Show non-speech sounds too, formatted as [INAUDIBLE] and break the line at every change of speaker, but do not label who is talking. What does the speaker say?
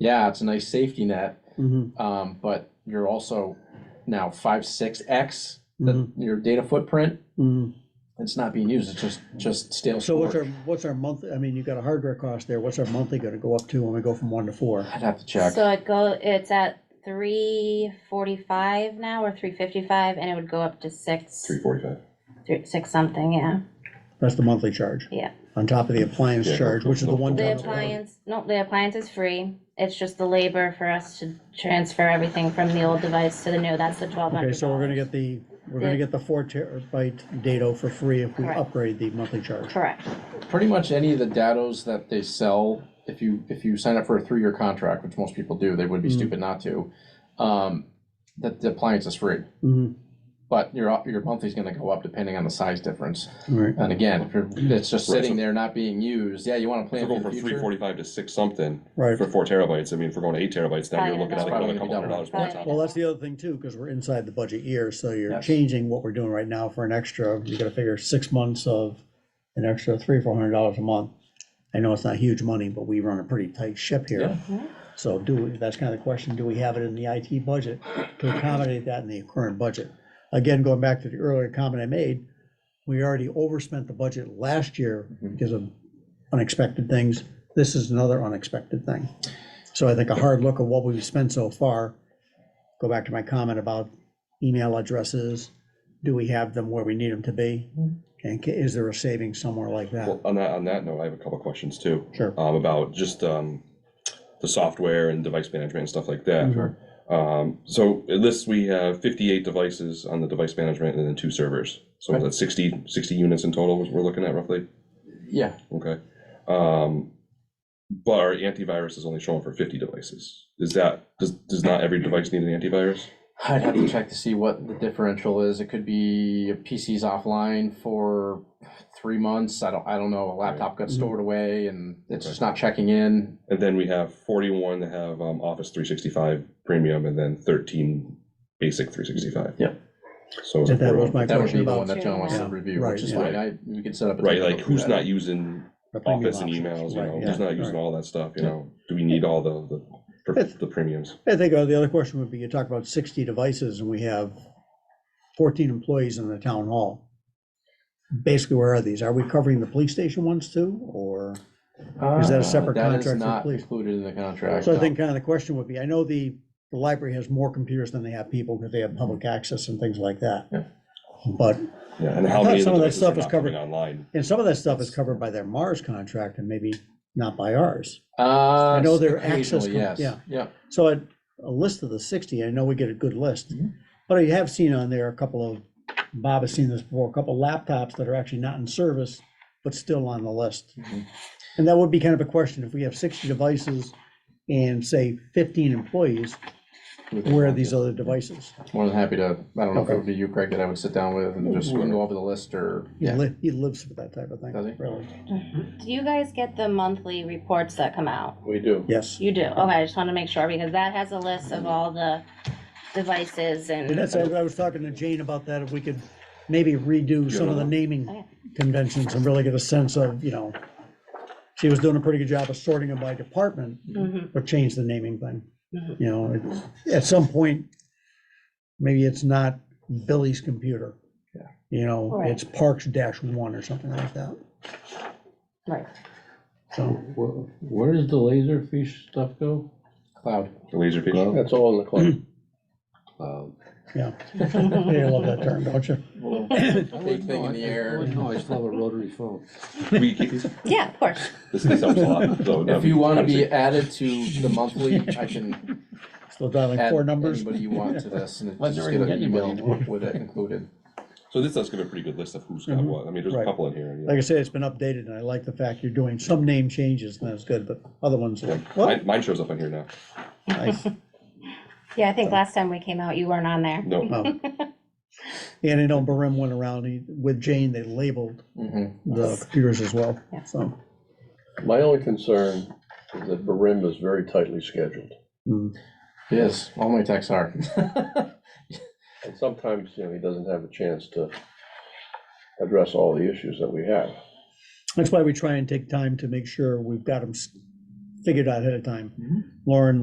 Yeah, it's a nice safety net,
Mhm,
um, but you're also now five, six X, the,
mhm,
your data footprint,
mhm.
it's not being used, it's just, just stale
So what's our,
storage.
what's our month, I mean, you've got a hardware cost there, what's our monthly gonna go up to when we go from one to four?
I'd have to check.
So it go, it's at three forty-five now or three fifty-five and it would go up to six,
Three forty-five.
three- six something, yeah.
That's the monthly charge.
Yeah.
On top of the appliance
Yeah,
charge, which is the one.
The
time.
appliance, no, the appliance is free. It's just the labor for us to transfer everything from the old device to the new. That's the twelve hundred.
Okay, so we're gonna get the, we're gonna
Yeah.
get the four terabyte data for free if we
Correct.
upgrade the monthly charge.
Correct.
Pretty much any of the datos that they sell, if you, if you sign up for a three-year contract, which most people do, they would be
Mhm.
stupid not to, um, that the appliance is free.
Mhm,
But your, op- your monthly's gonna go up depending on the size difference.
all right.
And again, if you're, it's just
Right,
sitting
so-
there not being used, yeah, you wanna
If
plan
we're
for
going
the
from three
future.
forty-five to six something
Right,
for four terabytes, I mean, if we're going to eight terabytes, now
Probably
you're looking at like
gonna
another
double.
couple hundred dollars more on top.
well, that's the other thing too, because we're inside the budget year, so you're
Yes.
changing what we're doing right now for an extra, you gotta figure six months of an extra three, four hundred dollars a month. I know it's not huge money, but we run a pretty tight ship here.
Yeah.
So do, we- that's kind of the question, do we have it in the IT budget to accommodate that in the current budget? Again, going back to the earlier comment I made, we already overspent the budget last year
Mhm.
because of unexpected things. This is another unexpected thing. So I think a hard look at what we've spent so far, go back to my comment about email addresses. Do we have them where we need them to be? And ca- is there a saving somewhere like
Well,
that?
on that, on that note, I have a couple of questions too,
Sure.
um, about just, um, the software and device management and stuff like that.
Sure.
Um, so at this, we have fifty-eight devices on the device management and then two servers. So
Okay.
that's 60 60 units in total, we're looking at roughly,
Yeah,
okay? Um, but our antivirus is only showing for fifty devices. Is that, does, does not every device need an antivirus?
I'd have to check to see what the differential is. It could be a PC's offline for three months. I don't, I don't know. A laptop got
Mhm.
stored away and it's just not checking in.
And then we have forty-one that have um, Office three sixty-five premium, and then thirteen basic three sixty-five.
Yep.
So it's
That
like,
that was
we're-
my
That would be
question
the one
about.
that John wants to
Yeah,
review,
right,
which is
yeah.
fine. I, we could set up. a
right,
technical
like
for
who's
that.
not using
the premium
Office and
options,
emails? You
right,
know,
yeah,
who's not
right.
using all that stuff? You
Yeah.
know, do we need all the the per-
It's-
the premiums?
I think uh, the other question would be, you talk about sixty devices and we have fourteen employees in the town hall. Basically, where are these? Are we covering the police station ones too, or? Is that a
Uh,
separate contract
That
for
is not
police?
included in the contract.
So I
no.
think kind of the question would be, I know the, the library has more computers than they have people because they have public access and things like that.
Yeah.
But,
Yeah, and
I
how
thought
many of
some
the
of that
devices
stuff
are
is
not coming
covered.
online?
and some of that stuff is covered by their Mars contract and maybe not by ours.
Uh,
I know their access
occasionally,
con-
Yes,
yeah.
yeah.
So a, a list of the sixty, I know we get a good list,
Mhm.
but I have seen on there a couple of, Bob has seen this before, a couple laptops that are actually not in service, but still on the list.
Mhm.
And that would be kind of a question, if we have sixty devices and say fifteen employees, where are these other devices?
More than happy to, I don't know if
Okay.
it would be you, Craig, that I would sit down with and just go over the list or,
He
yeah.
li- he lives for that type of thing,
Does he?
really.
Do you guys get the monthly reports that come out?
We do.
Yes,
You do? Okay, I just want to make sure because that has a list of all the devices
and
and,
that's, I I was talking to Jane about that, if we could maybe redo some of the naming
Okay.
conventions and really get a sense of, you know, she was doing a pretty good job of sorting them by department,
Mhm.
but change the naming thing.
Mhm.
You know, it- at some point, maybe it's not Billy's computer.
Yeah.
You know,
Right.
it's Parks dash one or something like that,
right. [LAUGHS]
so.
Where, where does the laser fish stuff go?
Cloud.
The laser
Cloud?
vision.
That's all in the cloud. Cloud.
[LAUGHS]
You love that term, don't you?
Big thing in the air.
No, I still have a rotary phone.
[LAUGHS]
We keep-
Yeah, of course.
This this helps a lot. so, no,
If you want to
obviously-
be added to the monthly,
[LAUGHS]
I can
Still dialing
add
four numbers.
anybody you want to this and
Well,
just
there
get
isn't
an email
anybody anymore.
with it included.
So this does give a pretty good list of who's got
Mhm.
what. I mean, there's
Right.
a couple in here. you know.
Like I said, it's been updated, and I like the fact you're doing some name changes, and that's good, but other ones like,
Yeah.
well,
Mine- Mine shows up on here now.
nice.
Yeah, I think last time we came out, you weren't on there.
No.
Oh.
[LAUGHS]
And I know Barim went around, he, with Jane, they labeled
Mhm.
the
Yes.
computers as well,
Yeah.
so.
My only concern is that Barim is very tightly scheduled.
mm,
Yes, all my texts are.
And sometimes, you know, he doesn't have a chance to address all the issues that we have.
That's why we try and take time to make sure we've got them figured out ahead of time.
Mhm.
Lauren